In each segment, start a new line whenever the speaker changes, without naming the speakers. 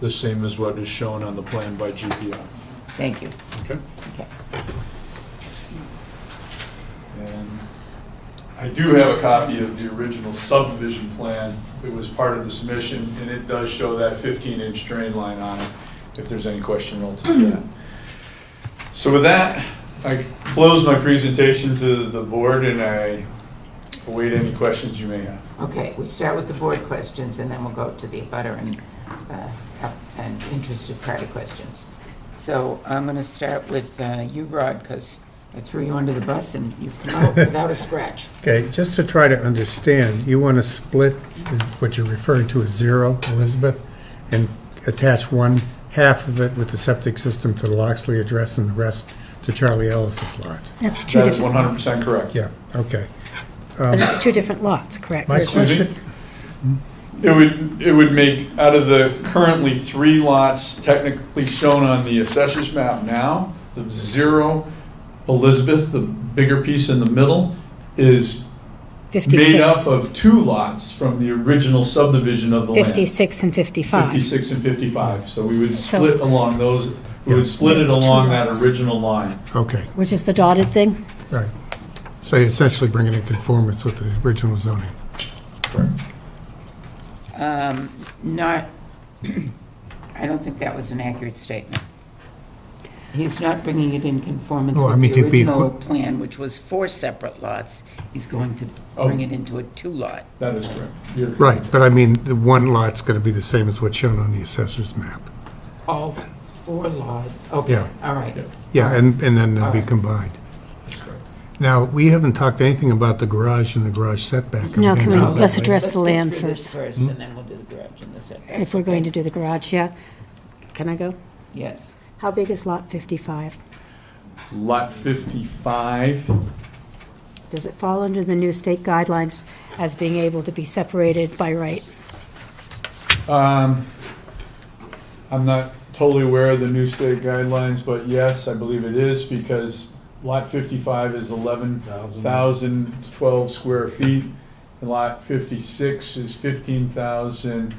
the same as what is shown on the plan by GPI.
Thank you.
Okay?
Okay.
And I do have a copy of the original subdivision plan that was part of the submission, and it does show that 15-inch drain line on it, if there's any question relative to that. So with that, I close my presentation to the board, and I await any questions you may have.
Okay, we start with the board questions, and then we'll go to the abutter and, uh, up- and interested party questions. So I'm going to start with uh, you, Rod, because I threw you under the bus and you come out without a scratch.
Okay, just to try to understand, you want to split what you're referring to as zero, Elizabeth, and attach one half of it with the septic system to the Loxley address and the rest to Charlie Ellis's lot.
That's two
That is
different,
100% correct.
Yeah, okay.
but it's two different lots, correct?
My
Excuse me?
question,
It would, it would make, out of the currently three lots technically shown on the assessor's map now, the zero Elizabeth, the bigger piece in the middle, is made up
56,
of two lots from the original subdivision of the land.
56 and 55.
56 and 55, so we would
So-
split along those, we would
Yeah.
split it
It's two
along that
lots.
original line.
okay,
Which is the dotted thing?
right. So you're essentially bringing it in conformance with the original zoning.
Um, Not, I don't think that was an accurate statement. He's not bringing it in conformance
No, I
with
mean,
the
to be-
original plan, which was four separate lots. He's going to
Oh.
bring it into a two-lot.
That is correct. You're-
Right, but I mean, the one lot's going to be the same as what's shown on the assessor's map.
All four lot, okay,
Yeah.
all right.
Yeah.
Yeah, and, and then they'll be
Alright.
combined.
That's correct.
Now, we haven't talked anything about the garage and the garage setback. I'm
No,
gonna
can we-
do that
Mm, let's
later.
address- That's the
Let's get
land
through this
first.
First, and then we'll do the garage in the setback.
If we're going to do the garage, yeah. Can I go?
Yes.
How big is lot 55?
Lot 55
Does it fall under the new state guidelines as being able to be separated by right?
Um, I'm not totally aware of the new state guidelines, but yes, I believe it is because lot fifty-five is eleven thousand twelve square feet. And lot fifty-six is fifteen thousand,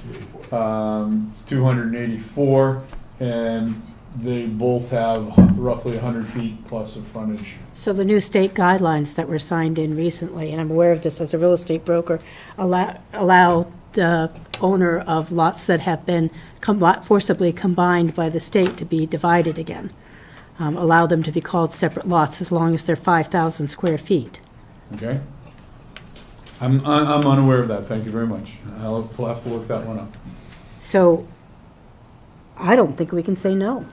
um, two hundred and eighty-four. And they both have roughly hundred feet plus of frontage.
So the new state guidelines that were signed in recently, and I'm aware of this as a real estate broker, allow, allow the owner of lots that have been com- forcibly combined by the state to be divided again. Um, Allow them to be called separate lots as long as they're 5,000 square feet.
Okay? I'm, I'm unaware of that. Thank you very much. I'll, we'll have to look that one up.
So I don't think we can say no.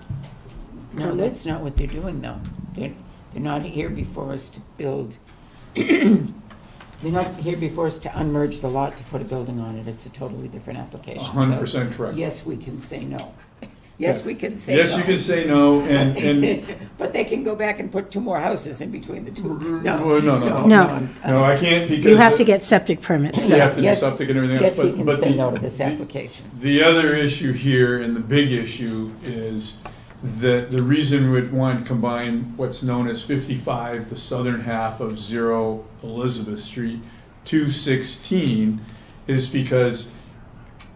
No, that's not what they're doing, though. They're, they're not here before us to build, they're not here before us to unmerge the lot to put a building on it. It's a totally different application. so
hundred percent correct.
Yes, we can say no. Yes, we can say no.
Yes, you can say no, and, and, Mm-hmm.
But they can go back and put two more houses in between the two.
well, no, no, no,
No.
I'm-
no, I can't because.
You have to get septic permits.
You have to do
Yes.
septic and everything else,
Yes, we
but,
can
but
say
the-
no to this
the-
application.
The other issue here, and the big issue, is that the reason we'd want to combine what's known as fifty-five, the southern half of zero Elizabeth Street, two sixteen, is because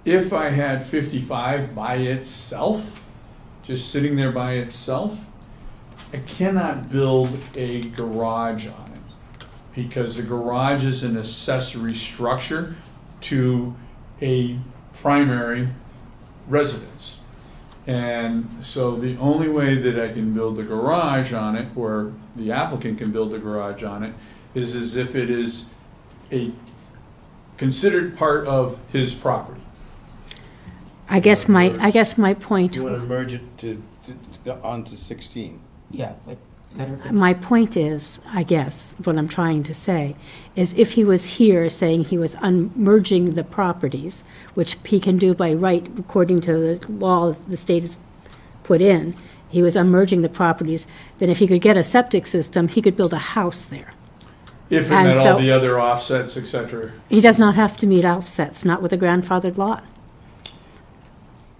if I had fifty-five by itself, just sitting there by itself, I cannot build a garage on it because the garage is an accessory structure to a primary residence. And so the only way that I can build a garage on it, or the applicant can build a garage on it, is as if it is a considered part of his property.
I guess my, I guess my point
You want to merge it to, to- onto 16.
Yeah, but better if it's-
My point is, I guess, what I'm trying to say, is if he was here saying he was unmerging the properties, which he can do by right according to the law that the state has put in, he was unmerging the properties, then if he could get a septic system, he could build a house there.
If it
And
met all
so-
the other offsets, et cetera.
He does not have to meet offsets, not with a grandfathered lot.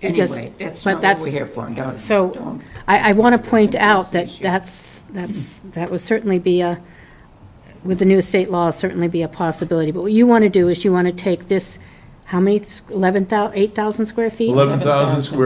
It just-
Anyway, that's
but
not what
that's-
we're here for. Don't,
So
don't-
I, I want to point out that
issue.
that's, that's, that would certainly be a, with the new state law, certainly be a possibility. But what you want to do is you want to take this, how many, eleven thousand, eight thousand square feet?
Eleven thousand square